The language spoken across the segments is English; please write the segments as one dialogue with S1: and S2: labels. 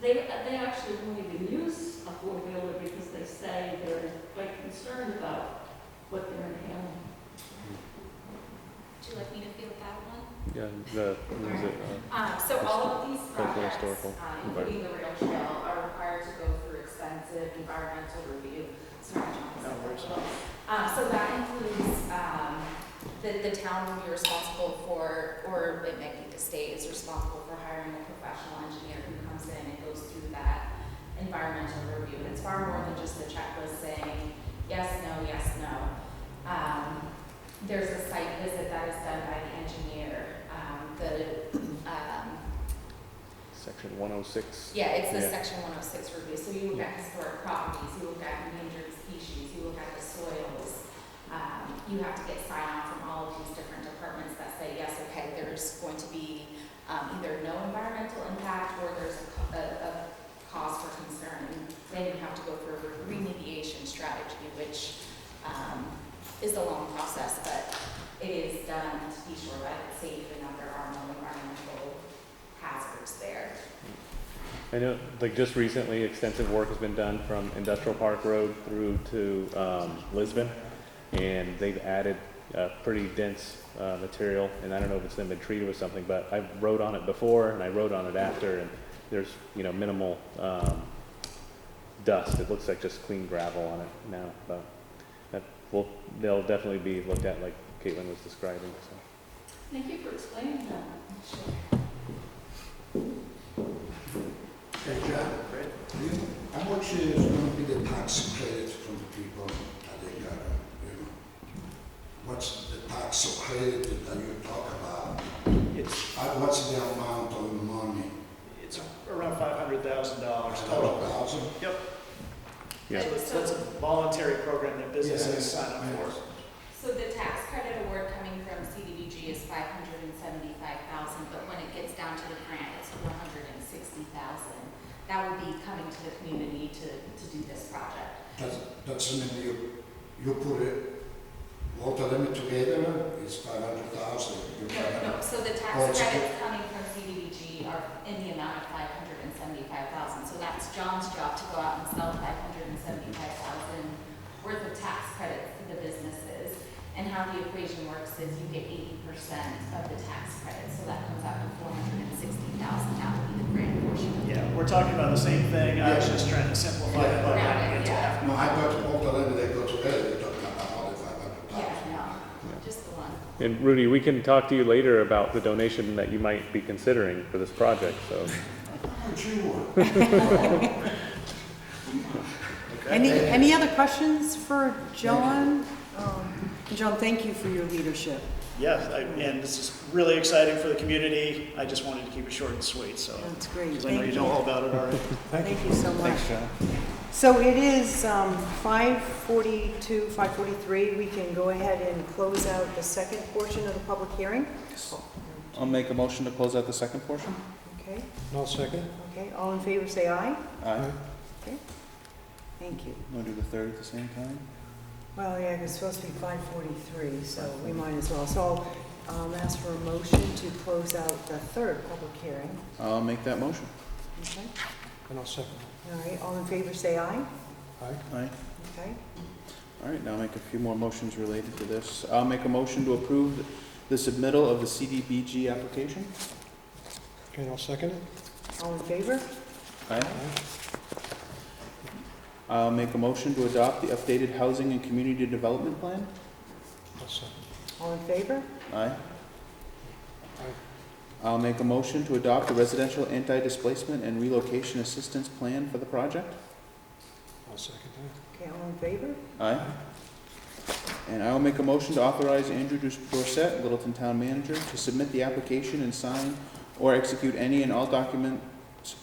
S1: They, uh, they actually won't even use a four-wheeler because they say they're quite concerned about what they're inhaling.
S2: Would you like me to field that one?
S3: Yeah, the, what is it, uh,
S4: Um, so all of these
S3: Local
S4: projects,
S3: historical
S4: um, including the rail trail, are required to go through extensive environmental review. Sorry, John,
S5: No
S4: it's a little- Um, so that includes, um, the, the town will be responsible for, or it might be the state is responsible for hiring a professional engineer who comes in and goes through that environmental review. And it's far more than just the checklist saying, yes, no, yes, no. Um, there's a site visit that is done by the engineer, um, the, um,
S3: section one oh six?
S4: yeah, it's the
S3: Yeah.
S4: section one oh six review, so you look at historic properties, you look at endangered species, you look at the soils. Um, you have to get sign off from all of these different departments that say, yes, okay, there's going to be, um, either no environmental impact or there's a, co- a, a cause for concern. And Then you have to go through a remediation strategy, which, um, is a long process, but it is done to be sure that it's safe and that there are no environmental hazards there.
S3: I know, like, just recently, extensive work has been done from Industrial Park Road through to, um, Lisbon. And they've added, uh, pretty dense, uh, material, and I don't know if it's then been treated with something, but I rode on it before and I rode on it after, and there's, you know, minimal, um, dust. It looks like just clean gravel on it now, but that will, they'll definitely be looked at like Caitlin was describing, so.
S1: Thank you for explaining that.
S5: Hey, John, you, how much is gonna be the tax credit from the people that they got, uh, you know? What's the tax credit that you talk about?
S6: It's,
S5: Uh, What's the amount of money?
S6: it's around five hundred thousand dollars
S5: Total
S6: total.
S5: thousand?
S6: Yep,
S3: Yeah.
S6: so it's, that's a voluntary program that
S5: Yeah.
S6: businesses sign up for.
S4: So the tax credit award coming from CDBG is five hundred and seventy-five thousand, but when it gets down to the grant, it's one hundred and sixty thousand. That would be coming to the community to, to do this project.
S5: That's, that's mean you, you put it, both of them together, it's five hundred thousand.
S4: No, no, so the tax
S5: Oh, it's-
S4: credits coming from CDBG are in the amount of five hundred and seventy-five thousand. So that's John's job to go out and sell five hundred and seventy-five thousand worth of tax credits to the businesses. And how the equation works is you get eighty percent of the tax credit, so that comes out to four hundred and sixty thousand. That would be the grant portion.
S6: Yeah, we're talking about the same thing, I was
S5: Yeah.
S6: just trying to simplify it by
S4: Yeah.
S6: adding it to
S4: Yeah.
S6: half.
S5: No, I thought both of them, they go together, you're talking about all the five hundred
S4: Yeah,
S5: thousand.
S4: no, just the one.
S3: And Rudy, we can talk to you later about the donation that you might be considering for this project, so.
S5: How much you want?
S7: Any, any other questions for John? Um, John, thank you for your leadership.
S6: Yes, I- and this is really exciting for the community, I just wanted to keep it short and sweet, so.
S7: That's great.
S6: Because I know
S7: Thank
S6: you know
S7: you.
S6: all about it already.
S7: Thank you so much. So it is um, 5:42, 5:43. We can go ahead and close out the second portion of the public hearing.
S8: I'll make a motion to close out the second portion.
S7: Okay,
S5: No second.
S7: okay. All in favor, say aye.
S8: Aye.
S7: Thank you.
S8: Want to do the third at the same time?
S7: Well, yeah, it's supposed to be 5:43, so we might as well. So I'll um, ask for a motion to close out the third public hearing.
S8: I'll make that motion.
S7: Okay,
S5: And I'll second.
S7: all right. All in favor, say aye.
S8: Aye.
S7: Okay.
S8: All right, now I'll make a few more motions related to this. I'll make a motion to approve the submittal of the CDBG application.
S5: Okay, I'll second it.
S7: All in favor?
S8: Aye. I'll make a motion to adopt the updated housing and community development plan.
S5: I'll second.
S7: All in favor?
S8: Aye. I'll make a motion to adopt the residential anti-displacement and relocation assistance plan for the project.
S5: I'll second it.
S7: Okay, all in favor?
S8: Aye. And I will make a motion to authorize Andrew Dus- Dorsett, Littleton Town Manager, to submit the application and sign or execute any and all documents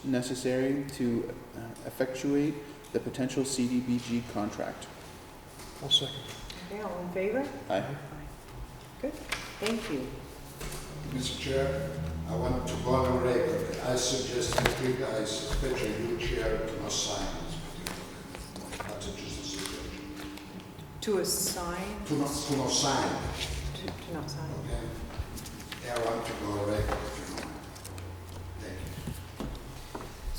S8: necessary to uh, effectuate the potential CDBG contract.
S5: I'll second.
S7: Okay, all in favor?
S8: Aye.
S7: Good, thank you.
S5: Mr. Chair, I want to go on record. I suggest that you guys, especially you, Chair, to not sign this particular. That's just a suggestion.
S7: To assign,
S5: To not, to not sign,
S7: to to not sign.
S5: okay? I want to go on record.